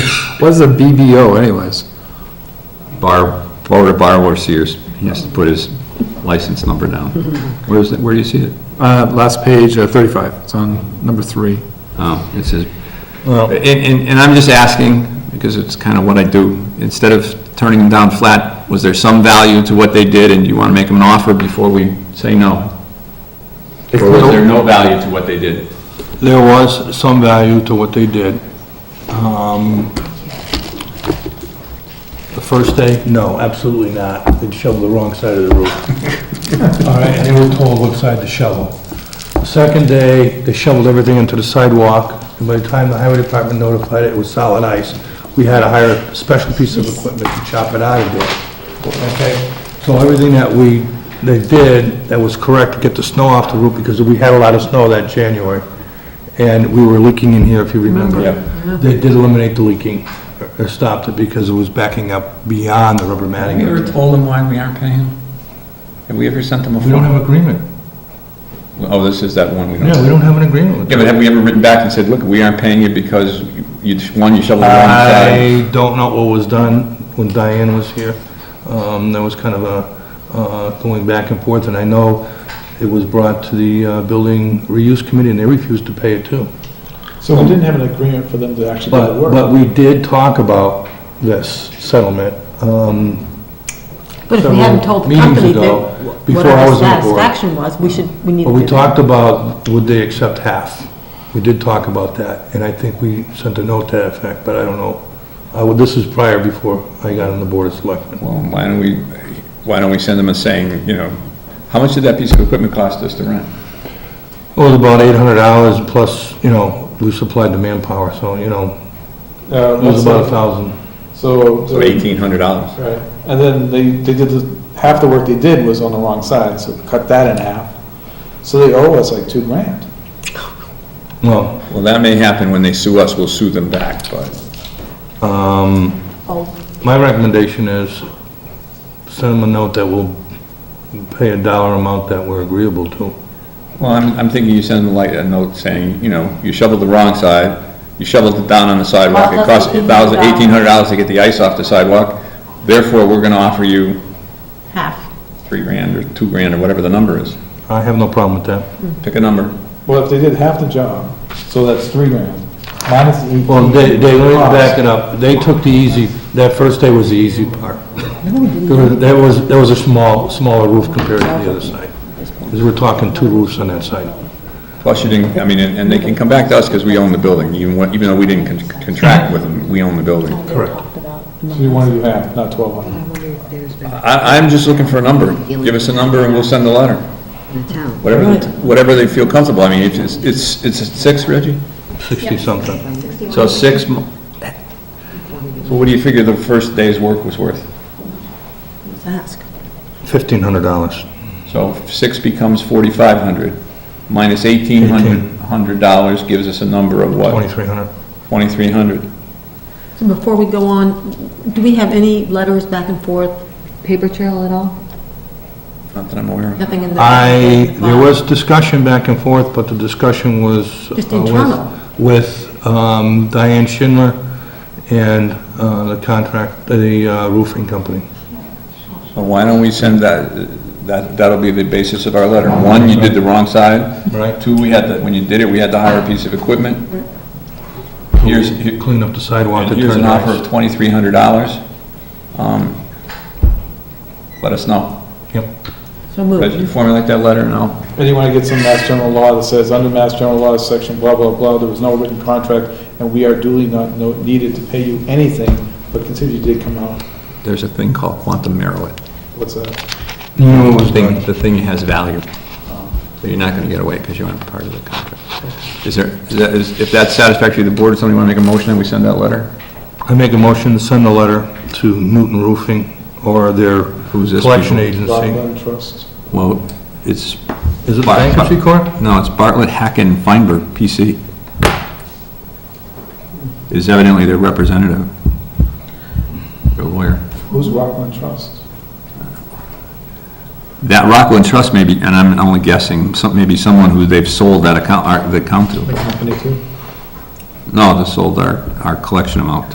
What is a BBO anyways? Bar, Florida Bar of Sears, he has to put his license number down. Where's, it- where do you see it? Uh, last page, uh, thirty-five, it's on number three. Oh, it says, and, and and I'm just asking, because it's kind of what I do, instead of turning them down flat, was there some value to what they did, and you want to make them an offer before we say no? Or was there no value to what they did? There was some value to what they did. Um, The first day, no, absolutely not. They'd shovel the wrong side of the roof. All right, and they were told what side to shovel. The second day, they shoveled everything into the sidewalk, and by the time the highway department notified it, it was solid ice. We had to hire a special piece of equipment to chop it out of there. Okay? So everything that we, they did, that was correct to get the snow off the roof, because we had a lot of snow that January, and we were leaking in here, if you remember. They did eliminate the leaking, or- or stopped it, because it was backing up beyond the rubber Have matting. you ever told them why we aren't paying them? Have we ever sent them a We don't form? have agreement. Oh, this is that one we don't. Yeah, we don't have an agreement with them. Yeah, but have we ever written back and said, look, we aren't paying you because you, one, you shoveled the wrong side? I don't know what was done when Diane was here. Um, There was kind of a uh, going back and forth, and I know it was brought to the uh, Building Reuse Committee, and they refused to pay it too. So we didn't have an agreement for them to actually do But, the work. but we did talk about this settlement. um, But if we several hadn't told the meetings company ago, that before whatever I the was on the board. satisfaction was, we should, we need to... But we talked about, would they accept half? We did talk about that, and I think we sent a note to that effect, but I don't know. I would- This is prior before I got on the Board of Selectmen. Well, why don't we, why don't we send them a saying, you know, how much did that piece of equipment cost us to rent? It was about eight hundred dollars plus, you know, we supplied the manpower, so, you know, Uh, it was let's about a say- thousand. So. So eighteen hundred dollars. Right, and then they, they did, the half the work they did was on the wrong side, so cut that in half. So they owe us like two grand. Well, Well, that may happen when they sue us, we'll sue them back, but um, Oh, my recommendation is send them a note that we'll pay a dollar amount that we're agreeable to. Well, I'm, I'm thinking you send them like a note saying, you know, you shoveled the wrong side, you shoveled it down on the sidewalk, it cost Cost us a thousand, $1,800. eighteen hundred dollars to get the ice off the sidewalk, therefore, we're gonna offer you half. three grand or two grand or whatever the number is. I have no problem with that. Pick a number. Well, if they did half the job, so that's three grand, minus the eighteen. Well, they, they, let me cost. back it up. They took the easy, that first day was the easy part. There was- There was, there was a small, smaller roof compared to the other side. Because we're talking two roofs on that side. Plus you didn't, I mean, and and they can come back to us because we own the building, even when- even though we didn't con- contract with them, we own the building. Correct. So you want to do half, not twelve hundred. I, I'm just looking for a number. Give us a number and we'll send the letter. Whatever, the- whatever they feel comfortable. I mean, if it's, it's, it's six, Reggie? Sixty-something. So six, mo- so what do you figure the first day's work was worth? Ask. Fifteen hundred dollars. So six becomes forty-five hundred, minus eighteen hundred, hundred dollars gives us a number of what? Twenty-three hundred. Twenty-three hundred. So before we go on, do we have any letters back and forth, paper trail at all? Not that I'm aware of. Nothing in the... I, there was discussion back and forth, but the discussion was. uh, Just with- internal. With um, Diane Schindler and uh, the contract, the uh, roofing company. Well, why don't we send that, that, that'll be the basis of our letter. One, you did the wrong side. Right. Two, we had to, when you did it, we had to hire a piece of equipment. Here's, here- Clean up the sidewalk. to here's turn an offer nice. of twenty-three hundred dollars. Um, Let us know. Yep. So Reggie, you moved. formulate that letter and I'll And you want to get some mass general law that says, under mass general law section blah, blah, blah, there was no written contract, and we are duly not no- needed to pay you anything, but consider you did come out. There's a thing called quantum merit. What's that? No, it The was thing, done. the thing has value, but you're not gonna get away because you aren't part of the contract. Is there, is that, is, if that's satisfactory to the board, somebody wanna make a motion and we send that letter? I make a motion to send a letter to Newton Roofing or their Who's this collection people? agency. Rockland Trust. Well, it's. Is it the Bar- bankruptcy court? No, it's Bartlett, Hacken, Feinberg, PC. It Is evidently their representative, their lawyer. Who's Rockland Trust? That Rockland Trust maybe, and I'm only guessing, some, maybe someone who they've sold that account, our- the account to. The company too? No, they sold our, our collection amount